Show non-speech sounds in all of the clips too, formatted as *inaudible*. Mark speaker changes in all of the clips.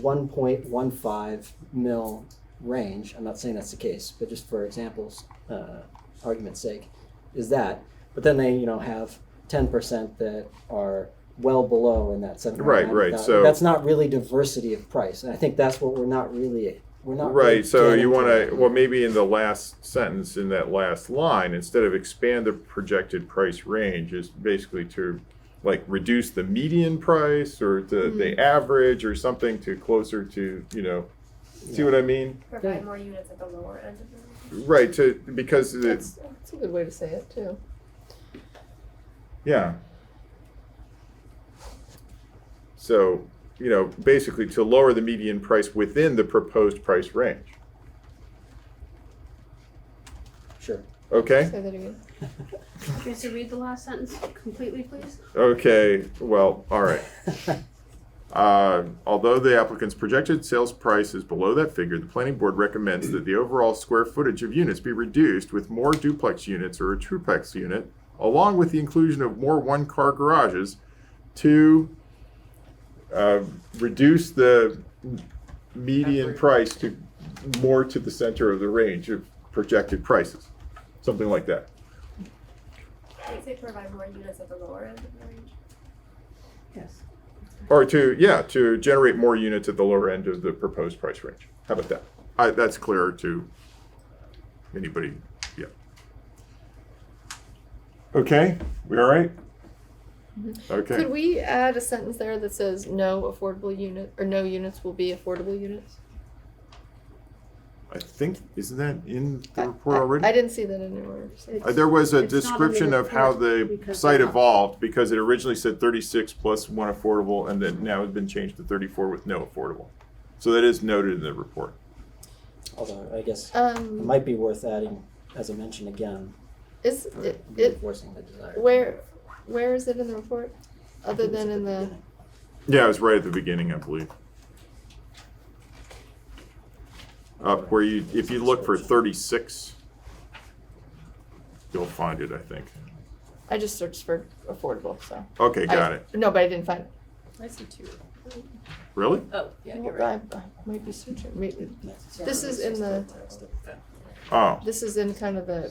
Speaker 1: one point one five mil range, I'm not saying that's the case, but just for examples, uh, argument's sake, is that. But then they, you know, have ten percent that are well below in that seven.
Speaker 2: Right, right, so-
Speaker 1: that's not really diversity of price, and I think that's what we're not really we're not really
Speaker 2: Right, so you
Speaker 1: getting
Speaker 2: wanna, well, maybe in the last sentence, in that last line, instead of expand the projected price range, is basically to like reduce the median price or the,
Speaker 1: Mm-hmm.
Speaker 2: the average or something to closer to, you know, see what I mean?
Speaker 1: Yeah.
Speaker 3: Provide more units at the lower end of the.
Speaker 2: Right, to, because it's,
Speaker 3: That's,
Speaker 4: That's a good way to say it too.
Speaker 2: Yeah. So, you know, basically to lower the median price within the proposed price range.
Speaker 1: Sure. *laughs*
Speaker 2: Okay?
Speaker 4: Say that again.
Speaker 5: Joyce, you read the last sentence completely, please?
Speaker 2: Okay, well, all right. Uh, although the applicant's projected sales price is below that figure, the planning board recommends that the overall square footage of units be reduced with more duplex units or a triplex unit, along with the inclusion of more one-car garages to uh, reduce the median price to more to the center of the range of projected prices, something like that.
Speaker 3: they say provide more units at the lower end of the range.
Speaker 1: Yes.
Speaker 2: Or to, yeah, to generate more units at the lower end of the proposed price range. How about that? I, that's clearer to anybody, yeah. Okay, we all right?
Speaker 4: Could
Speaker 2: Okay,
Speaker 4: we add a sentence there that says no affordable unit or no units will be affordable units?
Speaker 2: I think, isn't that in
Speaker 4: I-
Speaker 2: the report
Speaker 4: I- I
Speaker 2: already?
Speaker 4: didn't see that anywhere.
Speaker 2: Uh, There was a
Speaker 5: It's not in the
Speaker 2: description of how
Speaker 5: report
Speaker 2: the
Speaker 5: because
Speaker 2: site
Speaker 5: they're not-
Speaker 2: evolved, because it originally said thirty-six plus one affordable, and then now it's been changed to thirty-four with no affordable. So that is noted in the report.
Speaker 1: Although I guess it
Speaker 4: Um,
Speaker 1: might be worth adding, as I mentioned again,
Speaker 4: is it, it
Speaker 1: reinforcing the desire.
Speaker 4: where where is it in the report? Other than in the
Speaker 2: Yeah, it was right at the beginning, I believe. Up where you, if you look for thirty-six, you'll find it, I think.
Speaker 4: I just searched for affordable, so
Speaker 2: Okay, got
Speaker 4: I,
Speaker 2: it.
Speaker 4: No, but I didn't find it.
Speaker 6: I see two.
Speaker 2: Really?
Speaker 6: Oh, yeah, you're right.
Speaker 4: I, I might be searching. Maybe. This is in the
Speaker 2: Oh,
Speaker 4: this is in kind of the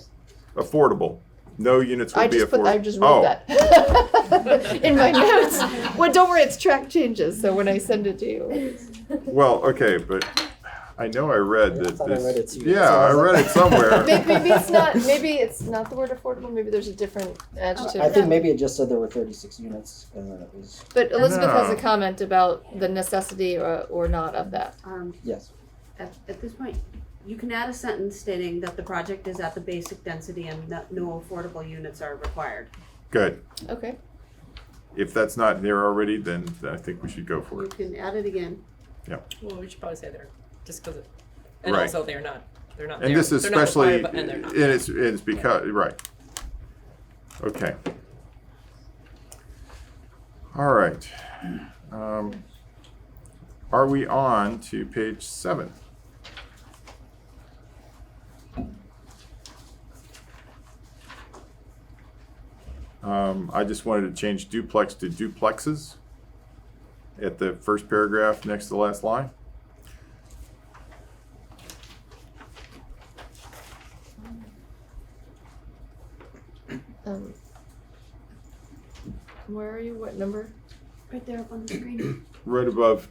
Speaker 2: affordable. No units
Speaker 4: I
Speaker 2: will be
Speaker 4: just put
Speaker 2: affordable.
Speaker 4: I just wrote
Speaker 2: Oh,
Speaker 4: *laughs* that *laughs* in my notes. Well, don't worry, it's track changes. So when I send it to
Speaker 5: *clears throat*
Speaker 4: you,
Speaker 2: Well, okay, but I know I read
Speaker 1: Yeah, I
Speaker 2: that
Speaker 1: thought I read it
Speaker 2: this,
Speaker 1: too.
Speaker 2: yeah, I read
Speaker 4: *laughs*
Speaker 2: it somewhere.
Speaker 4: maybe, maybe it's not. Maybe it's not the word affordable. Maybe there's a different adjective.
Speaker 1: I think maybe it just said there were thirty-six units uh, and then it was,
Speaker 4: But Elizabeth has a
Speaker 2: No.
Speaker 4: comment about the necessity or, or not of that.
Speaker 5: Um,
Speaker 1: yes.
Speaker 7: At, at this point, you can add a sentence stating that the project is at the basic density and that no affordable units are required.
Speaker 2: Good.
Speaker 4: Okay.
Speaker 2: If that's not there already, then I think we should go for
Speaker 7: You
Speaker 2: it.
Speaker 7: can add it again.
Speaker 6: Well, we should probably say they're just because. And
Speaker 2: Right.
Speaker 6: also, they're not. They're not.
Speaker 2: And
Speaker 6: there.
Speaker 2: this is
Speaker 6: They're not
Speaker 2: especially,
Speaker 6: required, but- and they're
Speaker 2: and
Speaker 6: not.
Speaker 2: it's, it's because, right. Okay. All right. Um, Are we on to page seven? Um, I just wanted to change duplex to duplexes at the first paragraph next to the last line.
Speaker 4: Um, where are you? What number?
Speaker 5: right there up on the screen.
Speaker 2: right above,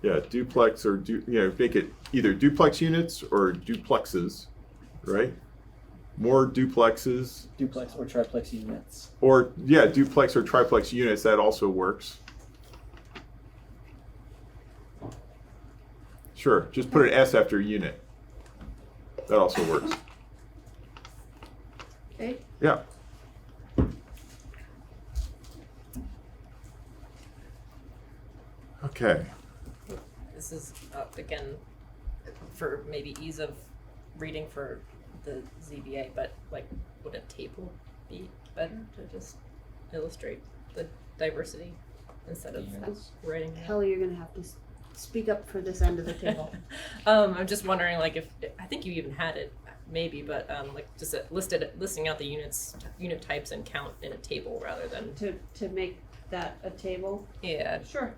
Speaker 2: yeah, duplex or du, you know, make it either duplex units or duplexes, right? More duplexes
Speaker 1: Duplex or triplex units.
Speaker 2: or yeah, duplex or triplex units that also works. Sure, just put an S after unit. That also works.
Speaker 7: Okay.
Speaker 2: Yeah. Okay.
Speaker 6: This is uh, again for maybe ease of reading for the ZBA, but like, would a table be better to just illustrate the diversity instead of writing? it?
Speaker 7: Kelly, you're gonna have to s- speak up for this end of the table.
Speaker 6: um, I'm just wondering, like, if I think you even had it, maybe, but um, like, just a, listed listing out the units, unit types, and count in a table rather than
Speaker 7: To, to make that a table?
Speaker 6: yeah,
Speaker 7: Sure.